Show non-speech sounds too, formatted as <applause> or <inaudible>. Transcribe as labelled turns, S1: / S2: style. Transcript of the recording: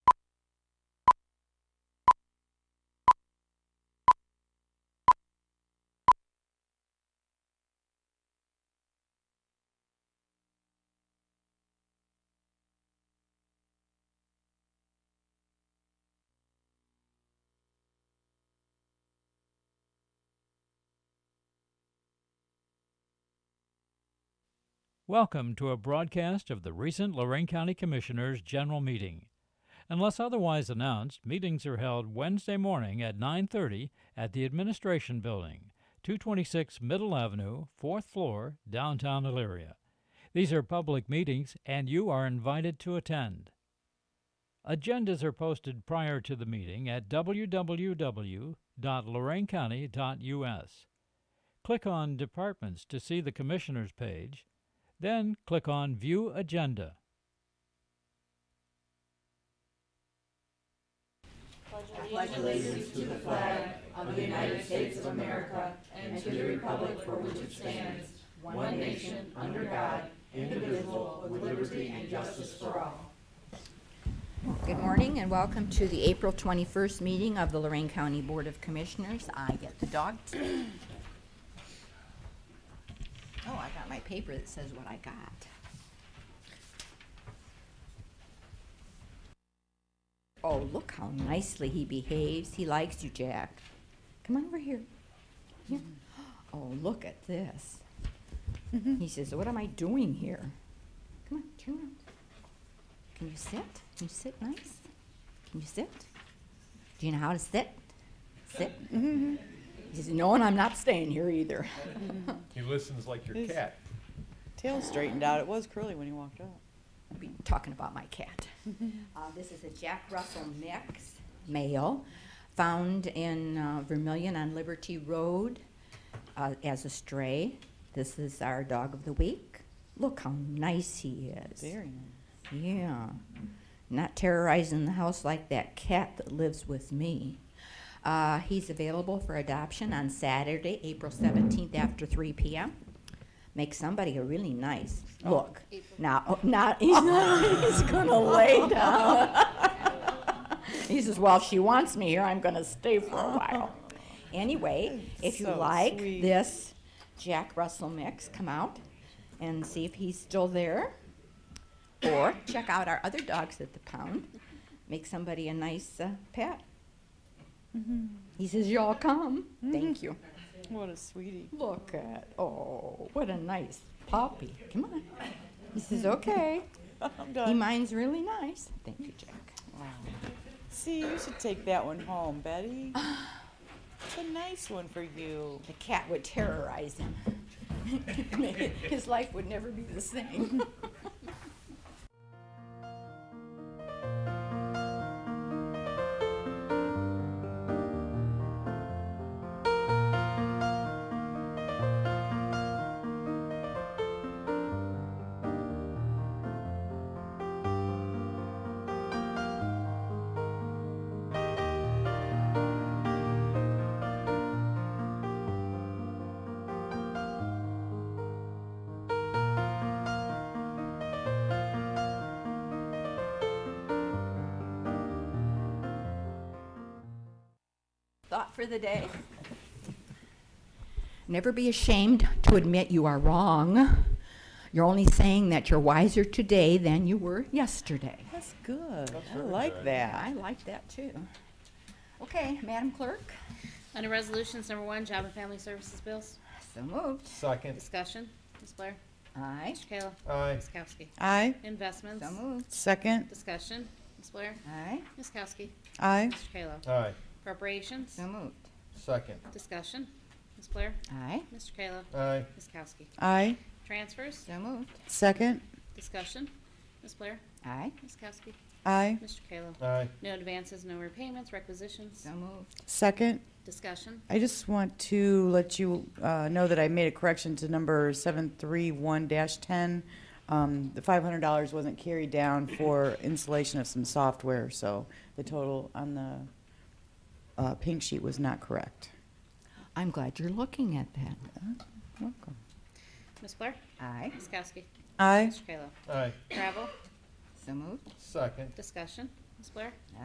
S1: Welcome to a broadcast of the recent Lorraine County Commissioners' General Meeting. Unless otherwise announced, meetings are held Wednesday morning at 9:30 at the Administration Building, 226 Middle Avenue, 4th floor, downtown Elyria. These are public meetings and you are invited to attend. Agendas are posted prior to the meeting at www.loraincounty.us. Click on Departments to see the Commissioners page, then click on View Agenda.
S2: Good morning and welcome to the April 21st meeting of the Lorraine County Board of Commissioners. I get the dog. today. Oh, I got my paper that says what I got. Oh, look how nicely he behaves. He likes you, Jack. Come on over here. Yeah. Oh, look at this. He says, what am I doing here? Come on, turn around. Can you sit? Can you sit nice? Can you sit? Do you know how to sit? Sit. Mm-hmm. He says, No, and I'm not staying here either.
S3: He listens like your
S4: Is-
S3: cat.
S4: Tail straightened out. It was curly when he walked up.
S2: I'll be talking about my cat. uh, this is a Jack Russell mix, male, found in uh, Vermillion on Liberty Road uh, as a stray. This is our dog of the week. Look how nice he is.
S4: Very nice.
S2: Yeah. Not terrorizing the house like that cat that lives with me. Uh, he's available for adoption on Saturday, April 17th after 3 p.m. Make somebody a really nice look. Now, oh, not, <laughs> he's, not, he's
S4: <laughs>
S2: gonna lay down. he says, Well, if she wants me here, I'm gonna stay for a while. Anyway, if you
S4: So
S2: like
S4: sweet.
S2: this Jack Russell mix, come out and see if he's still there. Or check out our other dogs at the pound. Make somebody a nice uh, pet.
S4: Mm-hmm.
S2: He says, Y'all come. Thank you.
S4: What a sweetie.
S2: Look at, oh, what a nice puppy. Come on. He says, Okay.
S4: <laughs> I'm
S2: He
S4: done.
S2: mine's really nice. Thank you, Jack.
S4: See, you should take that one home, Betty. It's a nice one for you.
S2: The cat would terrorize him. <laughs> His life would never be the same. Thought for the day. Never be ashamed to admit you are wrong. You're only saying that you're wiser today than you were yesterday.
S4: That's good. I like that.
S2: I like that too. Okay, Madam Clerk,
S5: Under Resolutions Number One, Job and Family Services Bills.
S2: so moved.
S3: Second.
S5: Discussion. Ms. Blair.
S2: Aye,
S5: Mr. Kayla.
S3: Aye.
S5: Ms. Kowski.
S4: I
S5: Investments.
S2: so moved.
S4: second.
S5: Discussion. Ms. Blair.
S2: Aye,
S5: Ms. Kowski.
S4: I
S5: Mr. Kayla.
S3: Aye.
S5: Appropriations.
S2: so moved.
S3: Second.
S5: Discussion. Ms. Blair.
S2: Aye,
S5: Mr. Kayla.
S3: Aye.
S5: Ms. Kowski.
S4: I
S5: Transfers.
S2: so moved.
S4: second.
S5: Discussion. Ms. Blair.
S2: Aye,
S5: Ms. Kowski.
S4: I
S5: Mr. Kayla.
S3: Aye.
S5: No advances, no repayments, requisitions.
S2: so moved.
S4: second.
S5: Discussion.
S4: I just want to let you uh, know that I made a correction to number 731-10. Um, The $500 wasn't carried down for installation of some software, so the total on the uh, pink sheet was not correct.
S2: I'm glad you're looking at that.
S4: Welcome.
S5: Ms. Blair.
S2: Aye,
S5: Ms. Kowski.
S4: Aye.
S5: Mr. Kayla.
S3: Aye.
S5: Travel.
S2: so moved.
S3: Second.
S5: Discussion. Ms. Blair.